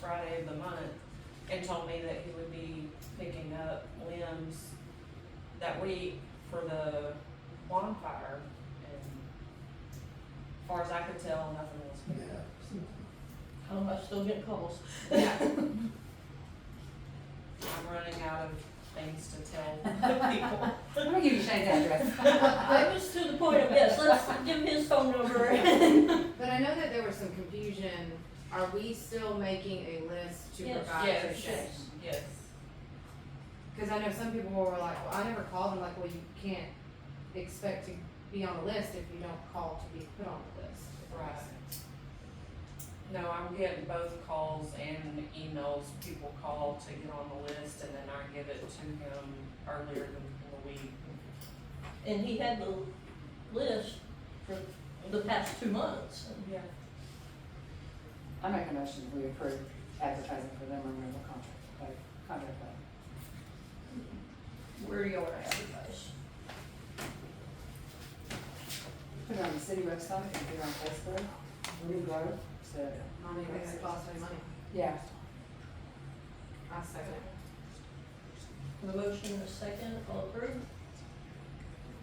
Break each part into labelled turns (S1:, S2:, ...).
S1: Friday of the month and told me that he would be picking up limbs that week for the bonfire. And as far as I could tell, nothing was picked up.
S2: Um, I still get calls.
S1: Yeah. I'm running out of things to tell people.
S3: I'm gonna give you Shane's address.
S2: I was to the point of, yes, let's give his phone number.
S4: But I know that there was some confusion. Are we still making a list to
S2: Yes.
S4: provide to
S1: Yes.
S4: Shane?
S1: Yes.
S4: Cause I know some people were like, well, I never called them, like, well, you can't expect to be on the list if you don't call to be put on the list. if that makes
S1: Right.
S4: sense.
S1: No, I'm getting both calls and emails. People call to get on the list and then I give it to him earlier than the week.
S2: And he had the list for the past two months.
S1: Yeah.
S3: I make a motion, we approve advertising for limb removal contract, like, contract like.
S2: Where do y'all wanna advertise?
S3: Put it on the city website, and put it on Facebook, Ruby Grove, so,
S4: Money makes it cost me money.
S3: yeah.
S4: I second it.
S2: The motion and a second, all approved?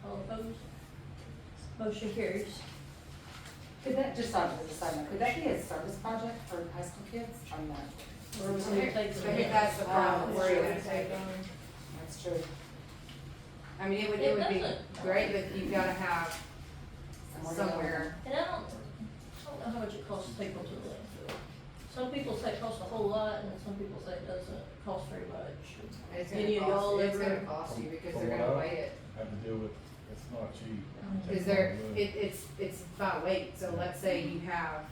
S2: All opposed? Motion carries.
S3: Could that, just on the side note, could that be a service project for high school kids? I'm not,
S2: Or we're gonna take
S4: So
S2: the-
S4: I think that's the problem,
S3: Um,
S4: where you're gonna
S3: sure.
S4: take them.
S3: that's true.
S4: I mean, it would,
S2: It
S4: it would be
S2: doesn't.
S4: great, but you've gotta have
S3: Somewhere to go.
S4: somewhere.
S2: And I don't, I don't know how much it costs to take them to the landfill. Some people say it costs a whole lot, and some people say it doesn't cost very much.
S4: It's
S2: Any
S4: gonna
S2: of y'all
S4: cost, it's
S2: ever-
S4: gonna cost you because
S5: From
S4: they're
S5: what
S4: gonna
S5: I-
S4: weigh it.
S5: Had to deal with, it's not cheap.
S2: Mhm.
S4: Um, Is there, it, it's, it's by weight, so let's say you have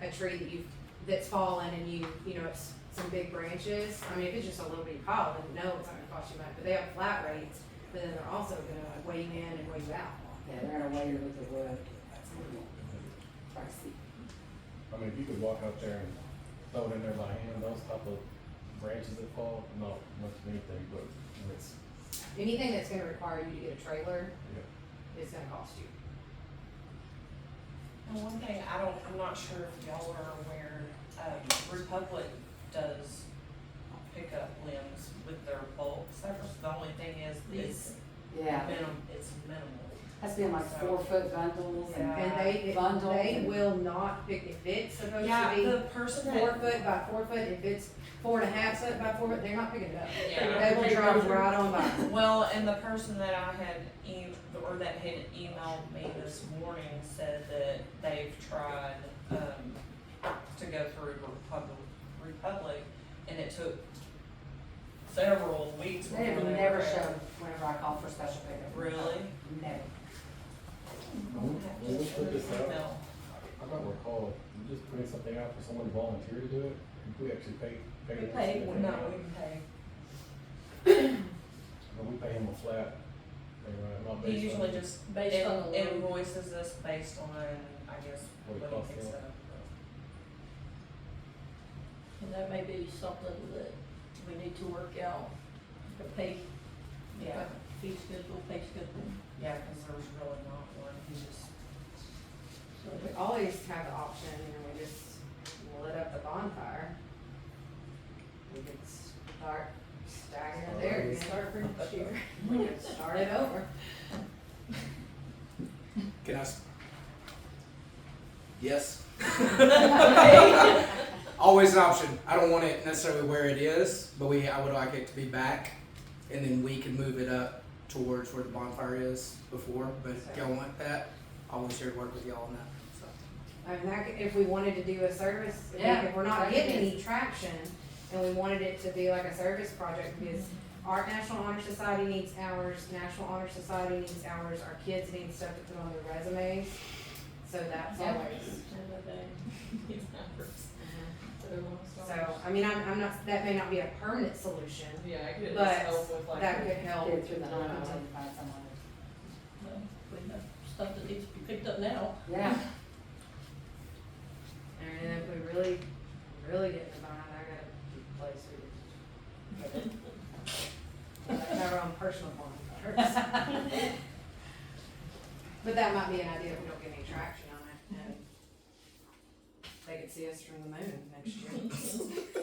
S4: a tree that you've, that's fallen and you, you know, it's some big branches, I mean, if it's just a little bitty pile, then no, it's not gonna cost you much, but they have flat rates, but then they're also gonna weigh you in and weigh you out.
S3: Yeah, they're gonna weigh you with the wood, that's gonna be pricey.
S5: I mean, if you could walk out there and throw it in there by hand, those type of branches that fall, not much of anything, but when it's,
S4: Anything that's gonna require you to get a trailer
S5: yeah.
S4: is gonna cost you.
S1: And one thing, I don't, I'm not sure if y'all are aware, um, Republic does pick up limbs with their bulk service. The only thing is, it's
S3: Yeah,
S1: minim, it's minimal.
S3: has to be in like four foot bundles and.
S1: Yeah.
S4: And they,
S3: Uh, Bundle.
S4: they will not pick, if it's supposed
S1: Yeah,
S4: to
S1: the person
S4: be four
S1: that,
S4: foot by four foot, if it's four and a half foot by four, foot, they're not picking it up.
S1: yeah.
S4: They will drive right on by.
S1: Well, and the person that I had e- or that had emailed me this morning said that they've tried, um, to go through Republic, Republic, and it took several weeks before
S3: They
S1: they
S3: have
S1: were
S3: never
S1: ready.
S3: shown whenever I call for special pickup.
S1: Really?
S3: Never.
S5: When when we put this out,
S1: No.
S5: I don't recall, we just putting something out for someone to volunteer to do it, If we actually pay, pay.
S2: We
S5: this
S2: pay,
S5: guy.
S1: Well, No, we pay.
S5: But we pay him a flat, and, uh, not
S1: He
S5: based on.
S1: usually just
S2: Based on the load.
S1: invoices us based on, I guess,
S5: What it
S1: what
S5: costs
S1: he picks
S5: him.
S1: up.
S2: And that may be something that we need to work out, the pay,
S1: Yeah,
S2: yeah, fee schedule, pay schedule.
S1: yeah, cause there's really not one, he just.
S2: So
S4: We always have the option, you know, we just lit up the bonfire. We could start stacking it there, we could start from here, we could start it over.
S6: Can I? s- Yes. Always an option. I don't want it necessarily where it is, but we I would like it to be back, and then we can move it up towards where the bonfire is before. But if y'all want that, always here to work with y'all on that. So.
S4: I mean, that could, if we wanted to do a service, if we-
S3: Yeah,
S4: if we're not
S3: that
S4: getting
S3: is-
S4: any traction and we wanted it to be like a service project, because our National Honor Society needs hours, National Honor Society needs hours, our kids need stuff to put on their resumes, so that's
S2: Yeah.
S4: always.
S2: end of the day.
S1: Mm-hmm.
S4: So, I mean, I'm, I'm not, that may not be a permanent solution,
S7: Yeah, I could just
S4: But
S7: help with like.
S4: that could help.
S3: Get it through the hunt
S4: Um,
S3: until you find someone.
S2: Well, uh, We have stuff that needs to be picked up now.
S3: Yeah.
S4: And if we really, really get in the bind, I got a place we could. Our own personal bonfires. But that might be an idea if we don't get any traction on it and they could see us from the moon next year.